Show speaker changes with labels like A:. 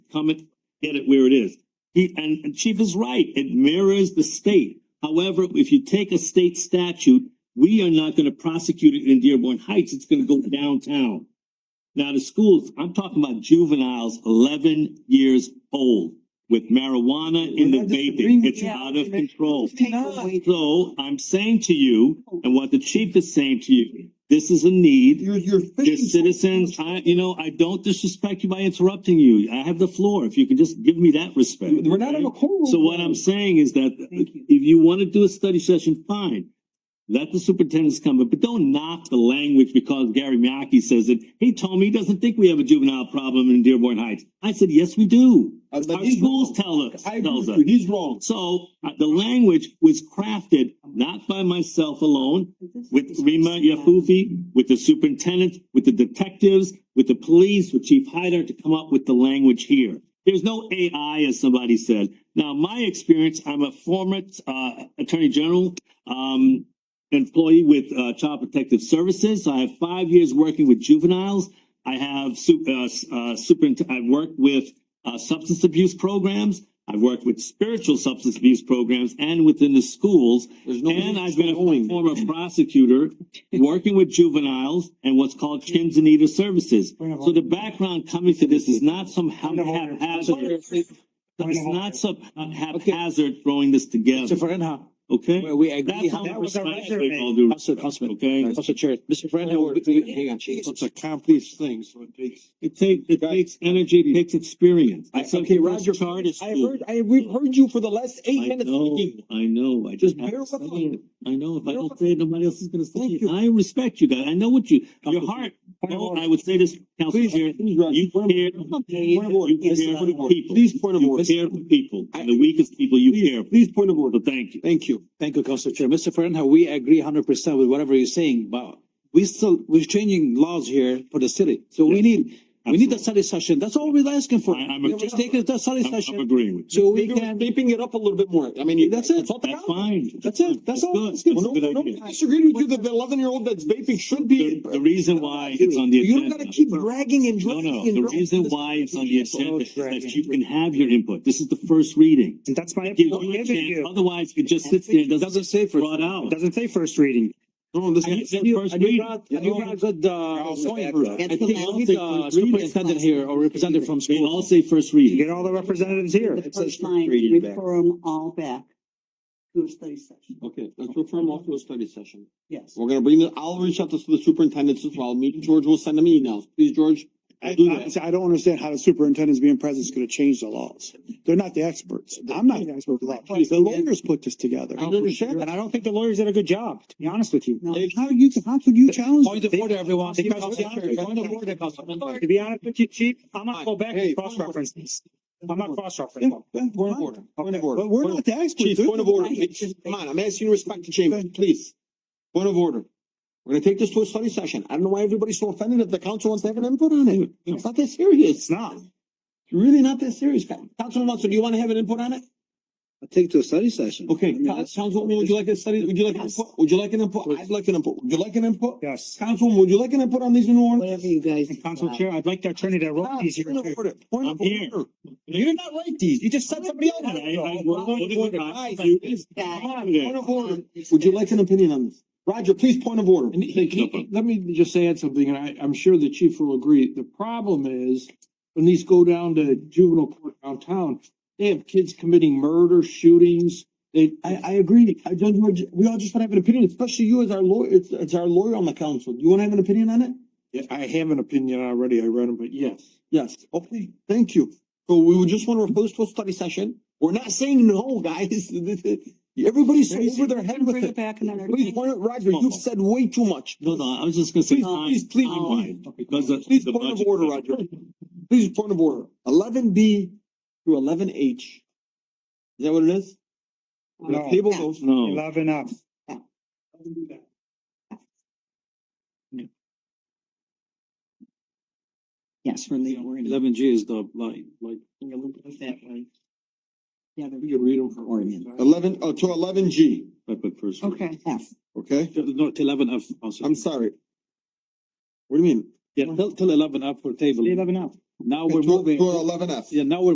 A: come and get it where it is. He, and, and Chief is right, it mirrors the state. However, if you take a state statute, we are not gonna prosecute it in Dearborn Heights, it's gonna go downtown. Now, the schools, I'm talking about juveniles eleven years old with marijuana in the
B: We're not disagreeing
A: vaping,
B: with
A: it's
B: you.
A: out of control.
C: Take
B: Not-
C: away the-
A: So I'm saying to you, and what the chief is saying to you, this is a need.
B: You're, you're
A: Your
B: fishing.
A: citizens, I, you know, I don't disrespect you by interrupting you. I have the floor. If you could just give me that respect.
B: We're not in a
A: okay?
B: courtroom.
A: So what I'm saying is that
C: Thank you.
A: if you wanna do a study session, fine. Let the superintendents come, in, but don't knock the language because Gary Mackey says it. He told me he doesn't think we have a juvenile problem in Dearborn Heights. I said, yes, we do.
B: Uh, but
A: Our
B: he's
A: schools
B: wrong.
A: tell us,
B: I agree
A: tells
B: with
A: us.
B: you, he's wrong.
A: So uh, the language was crafted not by myself alone, with Rima Yafufi, with the superintendent, with the detectives, with the police, with Chief Hyder to come up with the language here. There's no AI, as somebody said. Now, my experience, I'm a former uh Attorney General um employee with uh Child Protective Services. I have five years working with juveniles. I have su- uh, s- uh super, I've worked with uh substance abuse programs. I've worked with spiritual substance abuse programs and within the schools.
B: There's no.
A: And I've been a
B: going.
A: former prosecutor, working with juveniles and what's called kids in need of services. So the background coming to this is not some ha- haphazard, it's not some haphazard throwing this together,
D: Mr. Farinha,
A: okay?
D: well, we agree.
A: That's
D: how-
A: how
D: That
A: we
D: was our
A: respect
D: measure.
A: with all due
D: Council, Councilman,
A: okay?
D: Council Chair, Mr. Farinha.
B: Hang on,
D: we-
B: hang on, chief.
D: It's
B: Let's accomplish things, so it takes.
A: It takes, it takes energy, it takes experience.
D: I-
A: It's like
D: okay,
A: the
D: Roger,
A: Charter
D: I
A: school.
D: heard, I, we've heard you for the last eight
A: I
D: minutes.
A: know,
D: speaking.
A: I know, I just
D: Just
A: have
D: bear
A: to
D: with
A: say
D: us.
A: it. I know, if I
D: Bear
A: don't
D: with
A: say it, nobody else is gonna say
D: Thank
A: it.
D: you.
A: I respect you guys, I know what you, your
D: Council
A: heart,
D: Point of
A: oh,
D: order.
A: I would say this, Council
D: Please,
A: Chair,
D: please, Roger.
A: you
D: Point of-
A: care,
D: Point of order.
A: you
D: Yes,
A: care
D: point of
A: for
D: order.
A: people.
D: Please, point of
A: you
D: order.
A: care for people,
D: I-
A: and the weakest people you
D: Please-
A: care for,
D: Please, point of order.
A: so thank you.
D: Thank you. Thank you, Council Chair. Mr. Farinha, we agree hundred percent with whatever you're saying, but we still, we're changing laws here for the city. So we
A: Yes.
D: need, we need a
A: Absolutely.
D: study session. That's all we're asking for.
A: I- I'm
D: We're
A: agree-
D: just taking the study
A: I'm- I'm
D: session.
A: agreeing with you.
D: So we
B: Maybe we're
D: can,
B: beeping it up a little bit more. I mean, you-
D: That's it.
B: It's all the
A: That's
B: ground.
A: fine.
D: that's it. That's all.
A: Good, that's
D: That's good.
A: a
B: Well,
A: good
B: no, no,
A: idea.
B: I disagree with you. The eleven year old that's vaping should be.
A: The, the reason why it's on the
D: You
A: agenda.
D: don't gotta keep dragging and
A: No,
D: dragging.
A: no,
D: and
A: the
D: dragging
A: reason
D: this-
A: why it's on the agenda is
D: dragging.
A: that you can have your input. This is the first reading.
E: And that's my,
A: It gives you a chance, otherwise it just sits there and doesn't
D: Doesn't say
A: get
D: for.
A: brought out.
E: doesn't say first reading.
B: No, this
A: And
B: is.
A: it's the
D: And you,
A: first
D: and you
A: reading.
D: brought, and you brought good, uh,
B: Also
D: point.
B: backup.
D: I
C: Get
D: think
C: the
D: we need
B: uh,
A: law.
D: a superintendent here or representative from
A: They
D: school.
A: all say first reading.
E: You get all the representatives here.
C: The first line,
B: reading back.
C: refer them all back to a study session,
B: Okay, let's refer them off to a study session.
C: yes.
B: We're gonna bring the, I'll reach out to the superintendents as well. Me and George will send them emails. Please, George.
F: I,
B: do
F: I,
B: that.
F: see, I don't understand how the superintendent's being present is gonna change the laws. They're not the experts. I'm not the expert. with law. The lawyers put this together.
B: I understand
E: And I don't think the lawyers did a good job, to be honest with you.
C: No,
F: How you, how could you challenge?
D: Point of order, everyone.
E: Because-
D: Council Chair, point of order, Councilman.
E: To be honest with you, chief, I'm not go back
B: Hey,
E: and cross reference these. I'm not cross
F: Yeah,
E: referencing.
F: yeah,
B: Point of
F: fine.
B: order, point of order.
F: But we're not the experts.
B: Chief,
F: They're
B: point of
F: the
B: order.
F: lawyers.
B: Come on, I'm asking you to respect the chamber, please. Point of order. We're gonna take this to a study session. I don't know why everybody's so offended if the council wants to have an input on it. It's not that serious.
E: It's not.
B: It's really not that serious. Councilman Watson, do you wanna have an input on it?
D: I'll take to a study session.
B: Okay, Councilwoman, would you like a study, would you like, an
C: Yes.
B: input? would you like an input? I'd like an input. Would you like an input?
E: Yes.
B: Councilwoman, would you like an input on these new ordinance?
C: whatever you guys.
E: And Council Chair, I'd like the attorney that wrote
B: Ah,
E: these here.
B: Point of
E: too.
B: order, point of
A: I'm here.
B: order. You did not write these. You just sent somebody else.
A: I- I-
B: Point of order. Guys,
A: you-
C: That-
B: Point of order. Would you like an opinion on this? Roger, please, point of order.
G: And the key- let me just add something, and I, I'm sure the chief will agree. The problem is when these go down to juvenile court downtown, they have kids committing murder, shootings. They,
B: I, I agree. I don't, we all just wanna have an opinion, especially you as our lawyer, it's, it's our lawyer on the council. Do you wanna have an opinion on it?
G: Yeah, I have an opinion already. I read them, but yes.
B: Yes, okay, thank you. So we would just wanna refer this to a study session. We're not saying no, guys. Everybody's so over their head with
C: Bring it
B: it.
C: back another.
B: Please, point of- Roger, you've said way too much.
A: No, no, I was just gonna say.
B: Please,
A: time-
B: please, please,
A: time-wise,
B: please.
A: Because the.
B: Please,
A: the
B: point of
A: budget-
B: order, Roger. Please, point of order. Eleven B through eleven H. Is that what it is? The
C: uh,
E: No.
B: table goes,
A: No,
E: Eleven up.
C: Yes, we're leaving, we're gonna
D: Eleven G is the line, like.
C: go that way. The other
D: You can read them for
C: ordinance.
B: eleven, uh, to eleven G,
A: I put first. reading.
C: Okay. F.
B: okay?
D: No, till eleven F also.
B: I'm sorry. What do you mean?
D: Yeah, till, till eleven F for table.
E: Eleven up.
A: Now we're
H: To-
A: moving,
H: To eleven F.
A: yeah, now we're